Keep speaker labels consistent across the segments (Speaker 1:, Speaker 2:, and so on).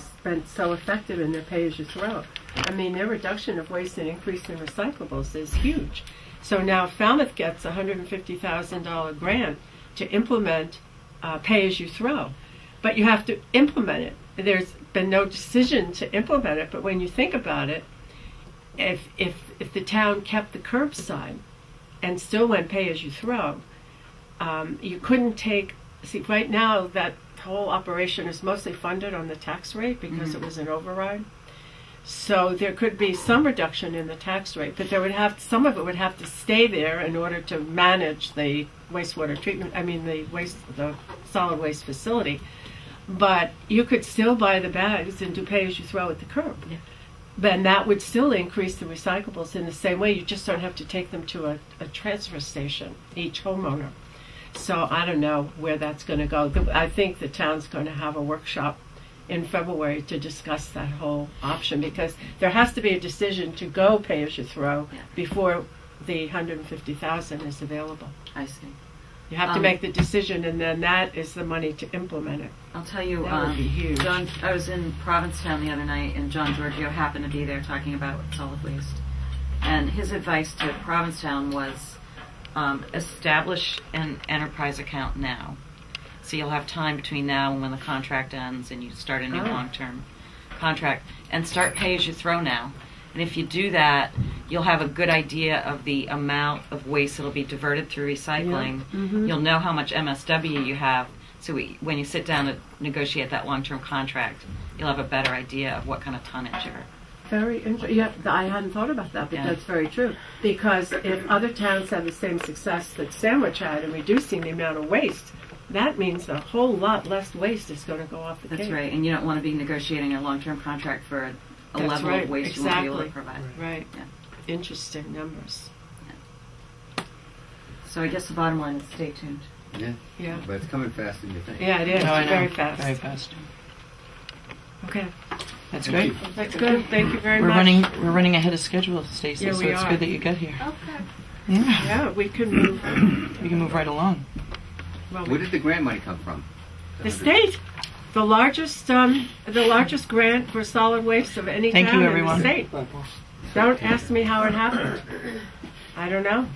Speaker 1: has been so effective in their pay-as-you-throw. I mean, their reduction of waste and increase in recyclables is huge. So now Falmouth gets a $150,000 grant to implement uh, pay-as-you-throw, but you have to implement it. There's been no decision to implement it, but when you think about it, if if if the town kept the curbside and still went pay-as-you-throw, um, you couldn't take. See, right now that whole operation is mostly funded on the tax rate because it was an override. So there could be some reduction in the tax rate, but there would have some of it would have to stay there in order to manage the wastewater treatment. I mean, the waste, the solid waste facility. But you could still buy the bags and do pay as you throw at the curb. Then that would still increase the recyclables in the same way. You just don't have to take them to a, a transfer station each homeowner. So I don't know where that's going to go. The- I think the town's going to have a workshop in February to discuss that whole option because there has to be a decision to go pay as you throw
Speaker 2: Yeah.
Speaker 1: before the 150,000 is available.
Speaker 2: I see.
Speaker 1: You have to
Speaker 2: Um,
Speaker 1: make the decision and then that is the money to implement it.
Speaker 2: I'll tell you,
Speaker 1: That would
Speaker 2: um,
Speaker 1: be huge.
Speaker 2: John. I was in Provincetown the other night, and John Giorgio happened to be there talking about solid waste. And his advice to Provincetown was um, establish an enterprise account now, so you'll have time between now and when the contract ends, and you start a new
Speaker 1: Oh.
Speaker 2: long-term contract, and start pay as you throw now. And if you do that, you'll have a good idea of the amount of waste that'll be diverted through recycling.
Speaker 1: Mhm.
Speaker 2: You'll know how much MSW you have. So we, when you sit down to negotiate that long-term contract, you'll have a better idea of what kind of tonnage you're.
Speaker 1: Very interesting. Yeah, th- I hadn't thought about that, but
Speaker 2: Yeah.
Speaker 1: that's very true. Because if other towns have the same success that Sandwich had in reducing the amount of waste, that means a whole lot less waste is going to go off the
Speaker 2: That's
Speaker 1: cake.
Speaker 2: right, and you don't want to be negotiating a long-term contract for a, a
Speaker 1: That's
Speaker 2: level
Speaker 1: right,
Speaker 2: of waste you won't be able
Speaker 1: exactly.
Speaker 2: to provide.
Speaker 1: Right.
Speaker 2: Yeah.
Speaker 1: Interesting numbers.
Speaker 2: So I guess the bottom line is stay tuned.
Speaker 3: Yeah,
Speaker 1: Yeah.
Speaker 3: but it's coming faster than you think.
Speaker 1: Yeah, it is.
Speaker 4: No, I know.
Speaker 1: Very fast.
Speaker 4: Very fast.
Speaker 1: Okay.
Speaker 4: That's
Speaker 3: Thank
Speaker 4: great.
Speaker 3: you.
Speaker 1: That's good. Thank you very
Speaker 4: We're
Speaker 1: much.
Speaker 4: running. We're running ahead of schedule, Stacey.
Speaker 1: Yeah,
Speaker 4: so
Speaker 1: we
Speaker 4: it's
Speaker 1: are.
Speaker 4: good that you got here.
Speaker 2: Okay.
Speaker 4: Yeah.
Speaker 1: Yeah, we can move.
Speaker 4: We can move right along.
Speaker 1: Well,
Speaker 3: Where
Speaker 1: we,
Speaker 3: did the grant money come from?
Speaker 1: the state, the largest, um, the largest grant for solid waste of any
Speaker 4: Thank
Speaker 1: town in
Speaker 4: you,
Speaker 1: the
Speaker 4: everyone.
Speaker 1: state. Don't ask me how it happened. I don't know.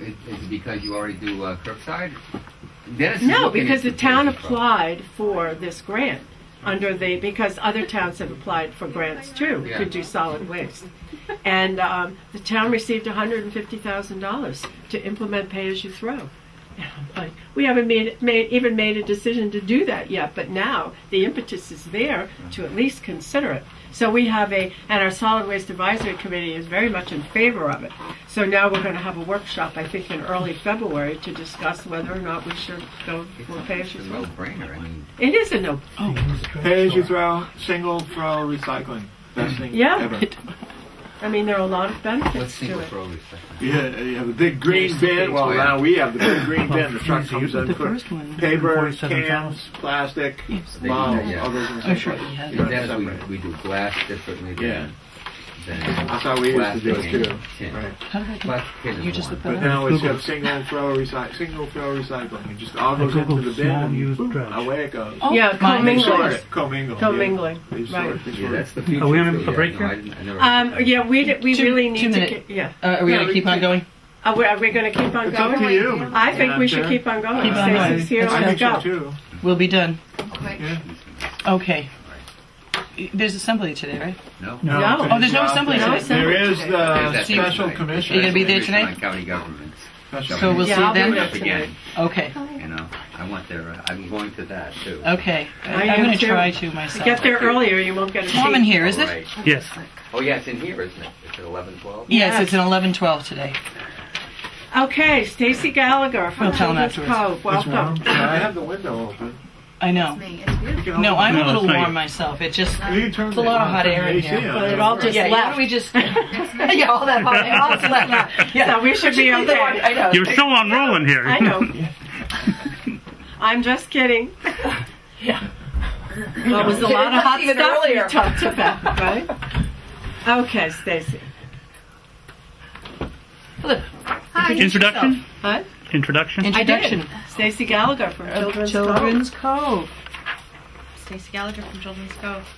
Speaker 3: Is is it because you already do uh, curbside? Dennis is
Speaker 1: No,
Speaker 3: looking
Speaker 1: because the
Speaker 3: into
Speaker 1: town
Speaker 3: pay-as-you-throw.
Speaker 1: applied for this grant under the, because other towns have applied for grants too,
Speaker 3: Yeah.
Speaker 1: to do solid waste. And um, the town received $150,000 to implement pay-as-you-throw. And I'm like, We haven't made, made, even made a decision to do that yet, but now the impetus is there to at least consider it. So we have a, and our solid waste advisory committee is very much in favor of it. So now we're going to have a workshop, I think, in early February to discuss whether or not we should go for pay as
Speaker 3: It's
Speaker 1: you
Speaker 3: a
Speaker 1: throw.
Speaker 3: no-brainer. I mean,
Speaker 1: It is a no.
Speaker 5: Pay as you throw, single throw recycling. Best thing
Speaker 1: Yeah.
Speaker 5: ever.
Speaker 1: I mean, there are a lot of
Speaker 3: let's
Speaker 1: benefits
Speaker 3: single
Speaker 1: to it.
Speaker 3: throw recycling.
Speaker 5: Yeah, you have the big green bin. Well, now we have the big green bin. The truck comes in
Speaker 4: The
Speaker 5: quick.
Speaker 4: first
Speaker 3: Oh,
Speaker 4: one.
Speaker 5: Paper,
Speaker 6: 147
Speaker 5: cans, plastic,
Speaker 3: They do
Speaker 5: bottles,
Speaker 3: that, yeah.
Speaker 5: all those in the
Speaker 4: Oh,
Speaker 5: same
Speaker 4: sure.
Speaker 5: place.
Speaker 4: Yeah.
Speaker 3: In Dennis, we, we do glass differently
Speaker 5: Yeah.
Speaker 3: than, than
Speaker 5: That's how we used to do
Speaker 3: plastic
Speaker 5: it
Speaker 3: and
Speaker 5: too.
Speaker 3: tin.
Speaker 5: Right.
Speaker 4: How did I get?
Speaker 3: Plastic tin
Speaker 4: You
Speaker 3: is
Speaker 4: just
Speaker 3: one.
Speaker 4: looked
Speaker 5: But
Speaker 4: that up.
Speaker 5: now it's
Speaker 6: Google.
Speaker 5: got single throw recycling. Single throw recycling. It just all goes
Speaker 6: I
Speaker 5: into
Speaker 6: Googled
Speaker 5: the bin
Speaker 6: small
Speaker 5: and
Speaker 6: used
Speaker 5: boom,
Speaker 6: trash.
Speaker 5: away it goes.
Speaker 4: Oh,
Speaker 1: Yeah,
Speaker 4: my
Speaker 5: They
Speaker 1: commingled.
Speaker 5: sort
Speaker 4: goodness.
Speaker 5: it. Co-mingle.
Speaker 1: Commingling,
Speaker 5: Yeah. They sort
Speaker 1: right.
Speaker 5: it. They
Speaker 3: Yeah,
Speaker 5: sort
Speaker 3: that's
Speaker 5: it.
Speaker 3: the future.
Speaker 6: we on a-
Speaker 3: so
Speaker 6: a break
Speaker 3: yeah, No,
Speaker 6: here?
Speaker 3: I, didn't- I
Speaker 1: Um,
Speaker 3: never.
Speaker 1: yeah, we, d- we
Speaker 4: Two-
Speaker 1: really need
Speaker 4: two
Speaker 1: to,
Speaker 4: minute.
Speaker 1: get- yeah.
Speaker 4: Uh, are we
Speaker 5: Yeah,
Speaker 4: gonna
Speaker 5: we
Speaker 4: keep on
Speaker 5: can-
Speaker 4: going?
Speaker 1: Are we, are we going to keep on
Speaker 5: It's
Speaker 1: going?
Speaker 5: up to you.
Speaker 1: I think we
Speaker 5: Madam
Speaker 1: should
Speaker 5: Chair.
Speaker 1: keep on going.
Speaker 4: Keep on
Speaker 1: Say
Speaker 4: going.
Speaker 1: six here,
Speaker 4: It's
Speaker 5: I
Speaker 1: let's
Speaker 5: think so
Speaker 1: go.
Speaker 5: too.
Speaker 4: We'll be done.
Speaker 5: Yeah.
Speaker 4: Okay. There's assembly today, right?
Speaker 3: No.
Speaker 1: No.
Speaker 4: Oh, there's no assembly
Speaker 1: No
Speaker 4: today.
Speaker 1: assembly.
Speaker 5: There is
Speaker 3: There's
Speaker 5: the
Speaker 3: that thing
Speaker 5: special
Speaker 3: tonight.
Speaker 4: You
Speaker 5: commission.
Speaker 4: gonna be there
Speaker 3: Commission on
Speaker 4: tonight?
Speaker 3: County government.
Speaker 5: Special
Speaker 4: So we'll
Speaker 1: Yeah,
Speaker 4: see
Speaker 1: I'll
Speaker 4: you
Speaker 1: be
Speaker 4: then.
Speaker 1: there.
Speaker 3: Up again,
Speaker 4: Okay.
Speaker 3: you know, I want their, uh, I'm going to that too.
Speaker 4: Okay.
Speaker 1: I
Speaker 4: I,
Speaker 1: am
Speaker 4: I'm gonna
Speaker 1: too.
Speaker 4: try to myself.
Speaker 1: Get there earlier, you won't get a seat.
Speaker 4: Warm in here, is
Speaker 3: All
Speaker 4: it?
Speaker 3: right.
Speaker 6: Yes.
Speaker 3: Oh, yeah, it's in here, isn't it? It's at 11, 12?
Speaker 4: Yes,
Speaker 1: Yes.
Speaker 4: it's an 11:12 today.
Speaker 1: Okay, Stacy Gallagher from
Speaker 4: We'll tell him
Speaker 1: Children's
Speaker 4: afterwards.
Speaker 1: Cove, welcome.
Speaker 5: I have the window open.
Speaker 4: I know.
Speaker 2: Me, it's beautiful.
Speaker 4: No, I'm a
Speaker 6: No,
Speaker 4: little
Speaker 6: it's not
Speaker 4: warm
Speaker 6: you.
Speaker 4: myself. It just
Speaker 5: You turn
Speaker 4: It's a lot of hot air in here.
Speaker 1: But it all just
Speaker 4: yeah. Why
Speaker 1: left.
Speaker 4: don't we just yeah all that hot air all just left out. Yeah.
Speaker 1: So we should be okay.
Speaker 4: I know.
Speaker 6: You're still on rolling here.
Speaker 1: I know. I'm just kidding.
Speaker 4: Yeah.
Speaker 1: Well, it was a lot of hot
Speaker 4: Even
Speaker 1: stuff we
Speaker 4: earlier.
Speaker 1: talked about, right? Okay, Stacy.
Speaker 4: Look,
Speaker 6: Introduction?
Speaker 1: What?
Speaker 6: Introduction?
Speaker 1: I
Speaker 4: Introduction.
Speaker 1: did. Stacy Gallagher from
Speaker 4: of
Speaker 1: Children's, Cove.
Speaker 4: Children's Cove.
Speaker 7: Stacy Gallagher from Children's Cove.